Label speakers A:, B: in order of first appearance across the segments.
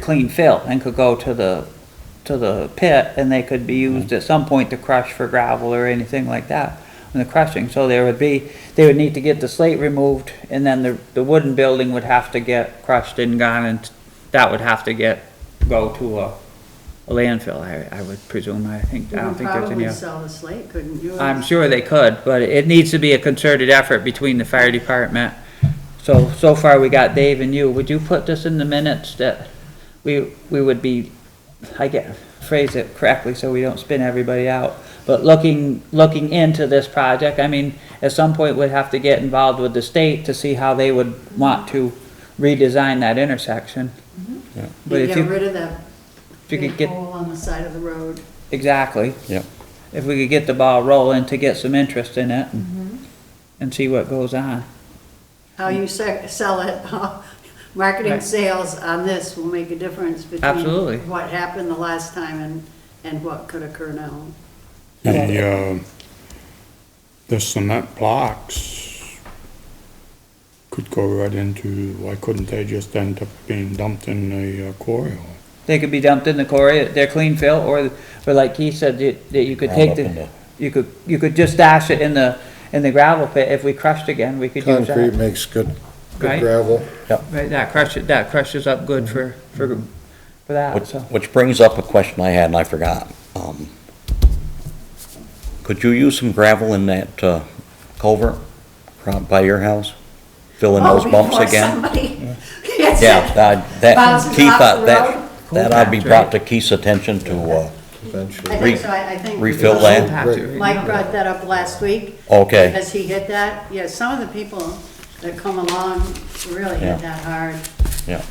A: clean fill and could go to the, to the pit and they could be used at some point to crush for gravel or anything like that in the crushing. So there would be, they would need to get the slate removed and then the, the wooden building would have to get crushed and gone and that would have to get, go to a a landfill, I, I would presume. I think,
B: You
A: I don't
B: could
A: think there's any.
B: probably
A: other-
B: sell the slate, couldn't you?
A: I'm sure they could, but it needs to be a concerted effort between the fire department. So, so far we got Dave and you. Would you put this in the minutes that we, we would be, I get, phrase it correctly so we don't spin everybody out. But looking, looking into this project, I mean, at some point we'd have to get involved with the state to see how they would want to redesign that intersection.
C: Yeah.
A: But
B: You
A: if
B: get
A: you,
B: rid of that
A: if you
B: big
A: could get,
B: hole on the side of the road.
A: exactly.
C: Yep.
A: if we could get the ball rolling to get some interest in it and see what goes on.
B: How you se- sell it, huh? marketing
A: Right.
B: sales on this will make a difference between
A: Absolutely.
B: what happened the last time and, and what could occur now.
C: The, uh, the cement blocks could go right into, why couldn't they just end up being dumped in the uh, quarry?
A: They could be dumped in the quarry, they're clean fill, or, or like he said, that that you could take
D: Round up in
A: the,
D: the-
A: you could, you could just dash it in the, in the gravel pit. If we crushed again, we could use
E: Concrete
A: that.
E: makes good,
A: Right.
E: good gravel.
A: Right, that crushes, that crushes up good for,
D: Mm-hmm.
A: for, for that,
D: Which,
A: so.
D: which brings up a question I had and I forgot. Um, Could you use some gravel in that uh, culvert around by your house? Fill in those
B: Oh,
D: bumps
B: before
D: again?
B: somebody- Yes.
D: Yeah, that, that,
B: Bounces
D: Keith,
B: off
D: uh,
B: the road.
D: that, that I'd be
A: Cool patch,
D: brought to Keith's attention to, uh,
B: I
E: eventually.
D: Re-
B: think so, I I think.
D: refill
B: because
D: land?
A: Have to,
B: Mike brought that up last week.
D: uh, okay,
B: Because he hit that, yeah, some of the people that come along really
D: Yeah.
B: hit that hard.
D: yeah,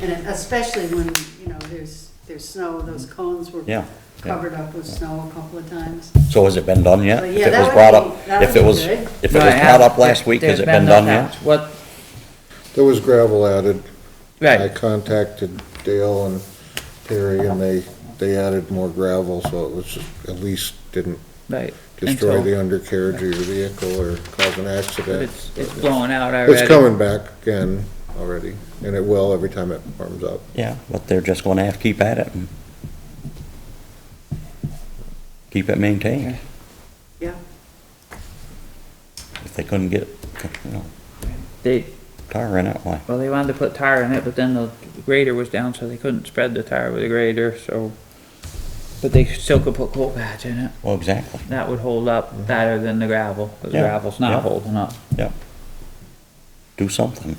B: And it- especially when, you know, there's, there's snow, those cones were
D: Yeah, yeah.
B: covered up with snow a couple of times.
D: so has it been done yet?
B: Well,
D: If
B: yeah,
D: it
B: that
D: was
B: would
D: brought
B: be-
D: up,
B: that
D: if
B: would
D: it
B: be
D: was,
B: good.
D: if it was brought up last week, has it been done yet?
A: What,
E: There was gravel added. I
A: right,
E: contacted Dale and Perry and they, they added more gravel, so it was, at least didn't
A: right.
E: destroy
A: Until-
E: the undercarriage of your vehicle or cause an
A: But
E: accident.
A: it's, it's blowing out already.
E: It's coming back again already, and it will every time it warms up.
D: Yeah, but they're just gonna have to keep at it and keep it maintained.
B: Yeah.
D: If they couldn't get, you know,
A: They,
D: tar in it, why?
A: Well, they wanted to put tire in it, but then the grader was down, so they couldn't spread the tire with the grader, so. But they still could put coal patch in it.
D: Well, exactly,
A: That would hold up better than the gravel, because
D: Yeah,
A: gravel's not
D: yeah.
A: holding up.
D: yeah. Do something.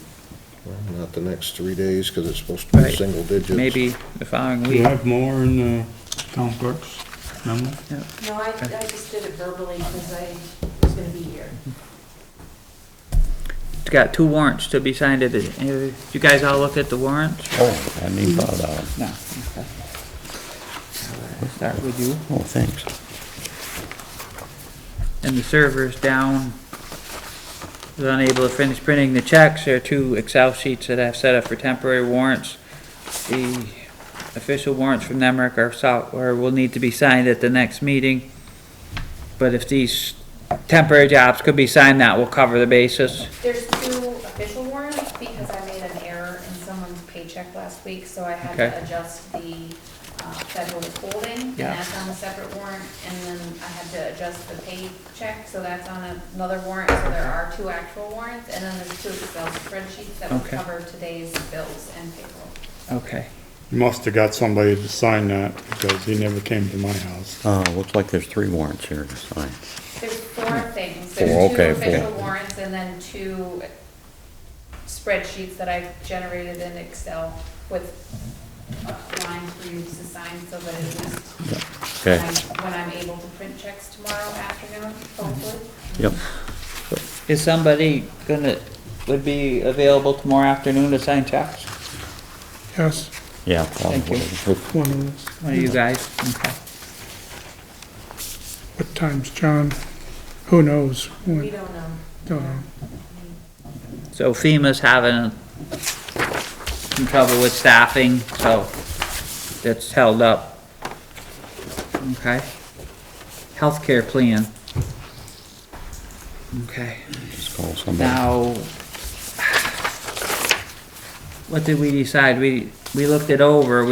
E: Not the next three days, because it's supposed to be
A: Right.
E: single digits.
A: Maybe the following
C: Do you
A: week.
C: have more in the town clerk's memo?
F: No, I, I just did it verbally because I was gonna be here.
A: It's got two warrants to be signed. Did uh, you guys all look at the warrants?
D: Oh, I hadn't even
A: Mm-hmm.
D: thought about it.
A: No. okay. Start with you.
D: Oh, thanks.
A: and the server's down. Was unable to finish printing the checks. There are two Excel sheets that I've set up for temporary warrants. The official warrants from Nemrick are sought, or will need to be signed at the next meeting. But if these temporary jobs could be signed, that will cover the basis.
F: There's two official warrants because I made an error in someone's paycheck last week, so I had
A: Okay.
F: to adjust the uh, federal withholding. And
A: Yeah.
F: that's on a separate warrant, and then I had to adjust the paycheck, so that's on another warrant. So there are two actual warrants, and then there's two Excel spreadsheets that will
A: Okay.
F: cover today's bills and payroll.
A: Okay.
C: You must have got somebody to sign that because he never came to my house.
D: Uh, looks like there's three warrants here to sign.
F: There's four things.
D: Hmm. Four,
F: There's two
D: okay,
F: official
D: four.
F: warrants and then two spreadsheets that I've generated in Excel with uh, lines for you to sign so that at least
D: Okay,
F: I'm- when I'm able to print checks tomorrow afternoon, hopefully.
D: yep.
A: Is somebody gonna, would be available tomorrow afternoon to sign checks?
C: Yes.
D: Yeah.
A: Thank you.
D: probably.
G: One of those.
A: One of you guys? Okay.
G: What time's John? Who knows?
F: We
G: When- uh,
F: don't know.
G: Don't know.
A: So FEMA's having some trouble with staffing, so that's held up. Okay. Healthcare plan. Okay,
D: Just call somebody.
A: now, what did we decide? We, we looked it over, we